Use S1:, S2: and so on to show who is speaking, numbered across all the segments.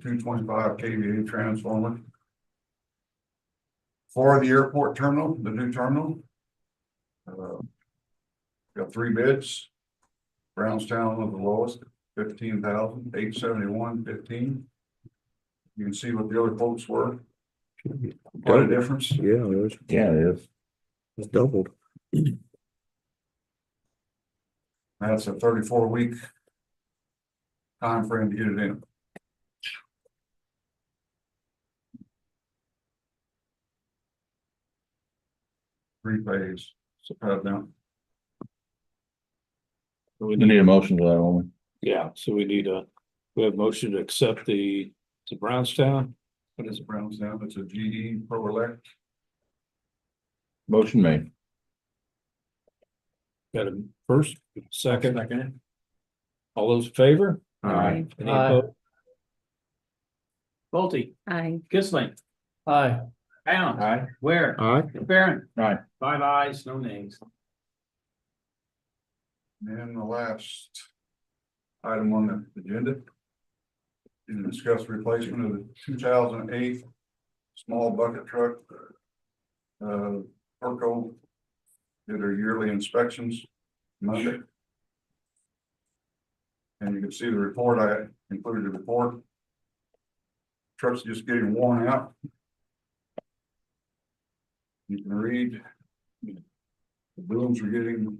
S1: two twenty-five KVA transformer. For the airport terminal, the new terminal. Uh, Got three bids. Brownstown was the lowest, fifteen thousand, eight seventy-one, fifteen. You can see what the other folks were, what a difference.
S2: Yeah, it was,
S3: Yeah, it is.
S2: it's doubled.
S1: That's a thirty-four week. time frame to get it in. Three phase, so, uh, now,
S4: So we
S3: We
S4: need,
S3: need a motion to that one.
S4: yeah, so we need a, we have motion to accept the, to Brownstown,
S1: what is it, Brownstown, it's a GE Pro Elect,
S3: Motion made.
S4: got a first, second. All those in favor?
S3: Aye.
S4: Any
S5: Aye.
S4: opposed?
S5: Bolte,
S6: Aye.
S5: Kissling. Aye. Bound.
S3: Aye.
S5: Where?
S2: Aye.
S5: Baron.
S3: Aye.
S5: Five ayes, no names.
S1: and the last. Item on the agenda. Is to discuss replacement of the two thousand eight small bucket truck. Uh, Perco. Did their yearly inspections Monday. And you can see the report, I included the report. Truck's just getting worn out. You can read. The booms are getting.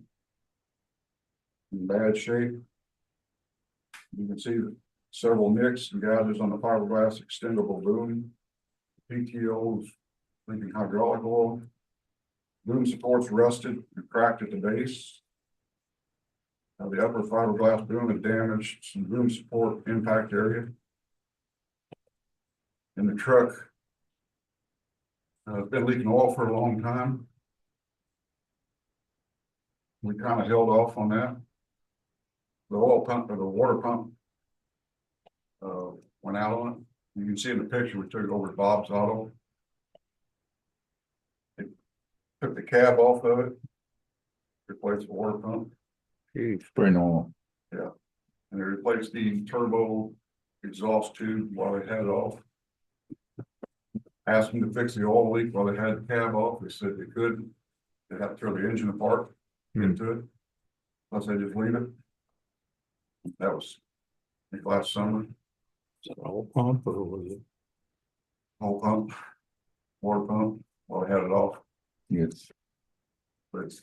S1: In bad shape. You can see several nicks and gouges on the fiberglass extendable boom. PTOs, leaking hydraulic oil. Boom supports rusted and cracked at the base. Now, the upper fiberglass boom is damaged, some boom support impact area. And the truck. Uh, been leaking oil for a long time. We kind of held off on that. The oil pump or the water pump. Uh, went out on it. You can see in the picture, we took it over to Bob's Auto. It Took the cab off of it. Replaced the water pump.
S2: Jeez.
S3: Pretty normal.
S1: And they replaced the turbo exhaust tube while they had it off. Asked them to fix the oil leak while they had the cab off, they said they couldn't, they had to throw the engine apart, get into it. Plus they just leave it. That was, I think last summer,
S4: Is that all pump or was it?
S1: whole pump, water pump, while they had it off,
S3: It's,
S1: but it's.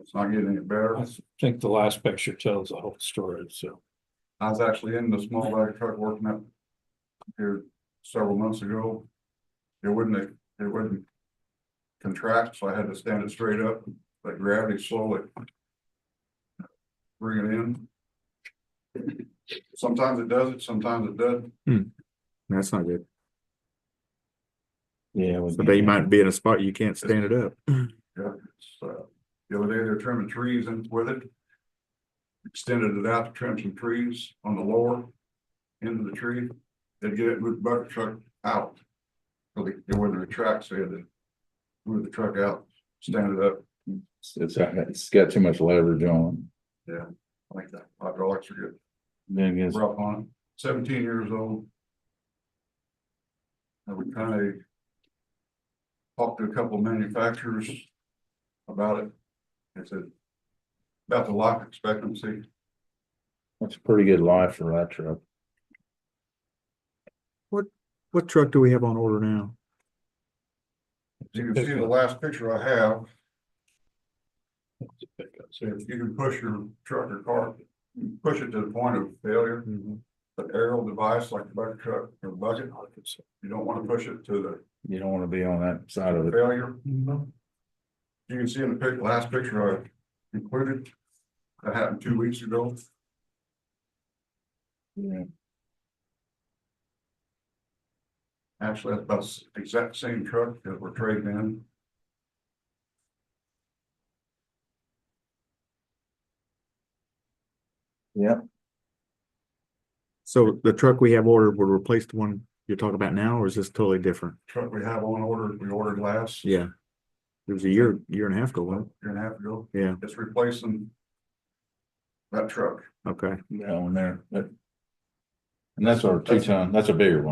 S1: It's not getting any better,
S4: I think the last picture tells the whole story, so.
S1: I was actually in the small bag truck working up here several months ago. It wouldn't, it wouldn't contract, so I had to stand it straight up, like gravity slowly. Bring it in. Sometimes it does it, sometimes it doesn't.
S2: That's not good.
S3: yeah. we-
S2: So they might be in a spot you can't stand it up.
S1: Yeah, it's, uh, The other day, they're trimming trees and with it. Extended it out to trim some trees on the lower end of the tree. They'd get it with the bucket truck out. So they, they wouldn't retract, so they had to move the truck out, stand it up
S3: It's, uh, it's got too much leverage on.
S1: like that. Hydraulics are good,
S3: it. Then it gets,
S1: rough on it. Seventeen years old. I would kind of talked to a couple manufacturers about it. They said about the life expectancy.
S3: that's a pretty good life for that truck.
S2: What truck do we have on order now?
S1: You can see the last picture I have, so if you can push your truck or car, push it to the point of failure, the aerial device like the bucket truck or bucket, you don't wanna push it to
S3: You don't wanna be on that side of
S1: the
S3: it.
S1: failure. You can see in the pic, last picture I included, that happened two weeks ago,
S3: Yeah.
S1: actually, that's about the exact same truck that we're trading in.
S2: So the truck we have ordered will replace the one you're talking about now, or is this totally different?
S1: Truck we have on order, we ordered last.
S2: Yeah. It was a year, year and a half ago, wasn't
S1: Year and a half ago,
S2: it? Yeah,
S1: it's replacing. That truck,
S2: okay.
S3: That one there, that
S2: And that's our two ton, that's a bigger one.